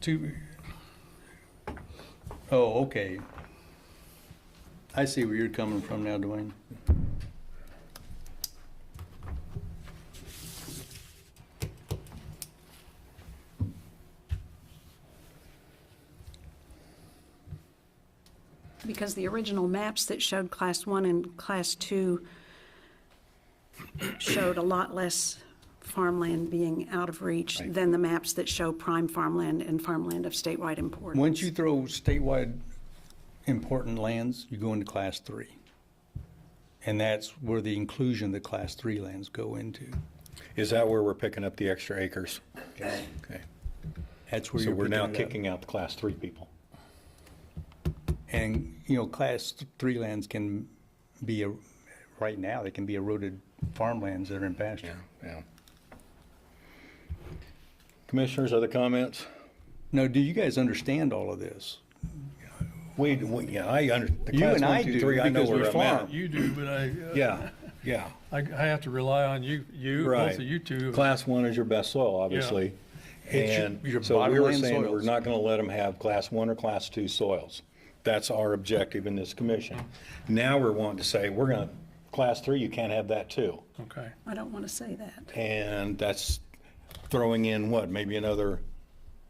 Two, oh, okay. I see where you're coming from now, Dwayne. Because the original maps that showed Class 1 and Class 2 showed a lot less farmland being out of reach than the maps that show prime farmland and farmland of statewide importance. Once you throw statewide important lands, you go into class three. And that's where the inclusion of the class three lands go into. Is that where we're picking up the extra acres? Okay. That's where So you're we're now picking it up. kicking out the class three people. And, you know, class th- three lands can be, a- right now, they can be eroded farmlands that are in pasture. yeah. Commissioners, other comments? Now, do you guys understand all of this? We, we- yeah, I under, the You class and I one, do, two, three, I know because we where I'm farm. at. You do, but I, uh, Yeah, yeah, I, I have to rely on you, you, right. both of you two. Class one is your best soil, obviously. It's your- And your so we were bottomland saying that we're soils. not gonna let them have class one or class two soils. That's our objective in this commission. Now we're wanting to say, we're gonna, class three, you can't have that too. Okay, I don't want to say that. And that's throwing in what, maybe another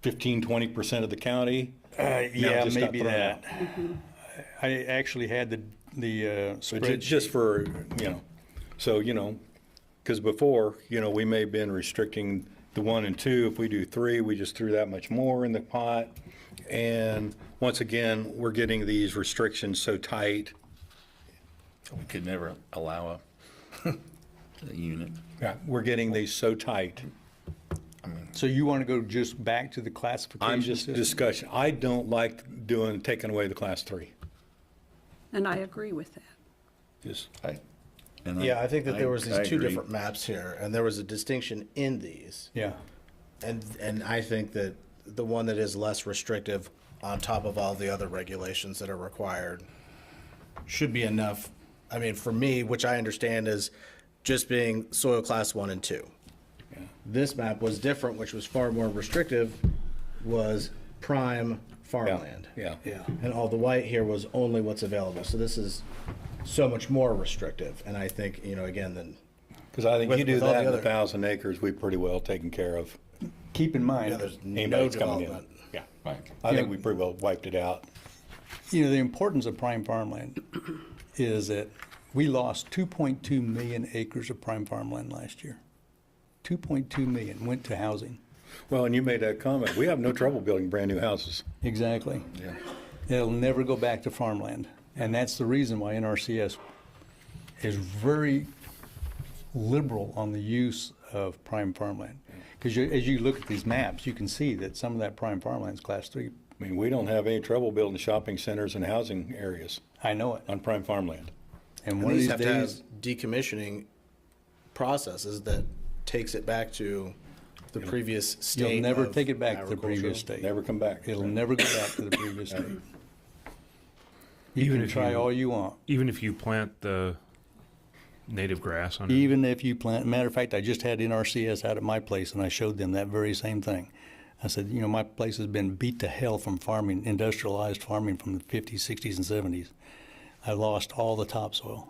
15, 20% of the county? Yeah, Uh, just got maybe thrown that. I actually had the, the uh, But ju- spreadsheet. just for, you know, so, you know, because before, you know, we may have been restricting the one and two. If we do three, we just threw that much more in the pot. And once again, we're getting these restrictions so tight. We could never allow a, a unit. We're getting these so tight. So you want to go just back to the I'm classification just system? discussion. I don't like doing, taking away the class three. And I agree with that. Just, I- and Yeah, I think that there was I these two agree. different maps here, and there was a distinction in these. Yeah. And, and I think that the one that is less restrictive on top of all the other regulations that are required should be enough. I mean, for me, which I understand is just being soil class one and two. This map was different, which was far more restrictive, was prime farmland. yeah. Yeah. And all the white here was only what's available. So this is so much more restrictive. And I think, you know, again, then Because I think With- you do with all that the in a other- thousand acres, we pretty well taken care of. Keep in yeah, mind, there's no Anybody's coming in. development. Yeah. Right. I think we pretty well wiped it out. you know, the importance of prime farmland is that we lost 2.2 million acres of prime farmland last year. 2.2 million went to housing. Well, and you made that comment. We have no trouble building brand-new houses. Exactly. It'll never go back to farmland. And that's the reason why NRCS is very liberal on the use of prime farmland. Because as you look at these maps, you can see that some of that prime farmland's class three. I mean, we don't have any trouble building shopping centers and housing areas I know it. on prime farmland. And And one of these these have to have days, decommissioning processes that takes it back to the previous state. you'll never of take it back to the agriculture. previous state. Never come back. It'll never go back to the previous state. You Even can if try you- all you want. even if you plant the native grass on it, Even if you plant, matter of fact, I just had NRCS out at my place and I showed them that very same thing. I said, you know, my place has been beat to hell from farming, industrialized farming from the 50s, 60s, and 70s. I lost all the topsoil.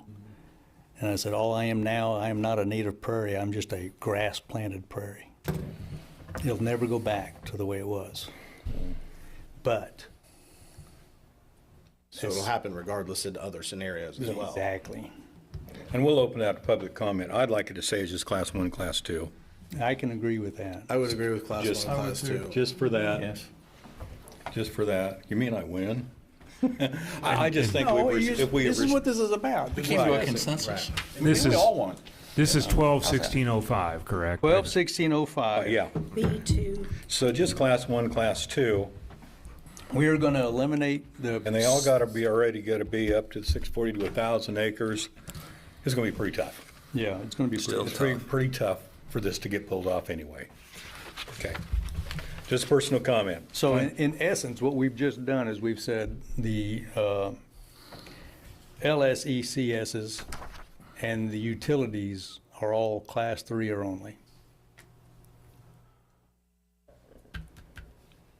And I said, all I am now, I am not a native prairie, I'm just a grass planted prairie. It'll never go back to the way it was. But, So it'll happen regardless in other scenarios as well. exactly. And we'll open that to public comment. I'd like it to say it's just class one, class two. I can agree with that. I would agree with class one, Just- and class I would two. Just for that. Yes. Just for that. You mean I win? I, I just think we, res- if we. res- this is about. We came to a consensus. This We is- all want. this is twelve sixteen oh five, correct? Twelve sixteen oh five. Yeah, B2, so just class one, class two, We are gonna eliminate the. and they all gotta be, already gotta be up to six forty to a thousand acres. It's gonna be pretty tough. Yeah, it's gonna be. Still pretty- It's pretty, pretty tough for this to get pulled off anyway. Okay. Just personal comment. So in, in essence, what we've just done is we've said the, uh, E LSECSs and the utilities are all class three or only.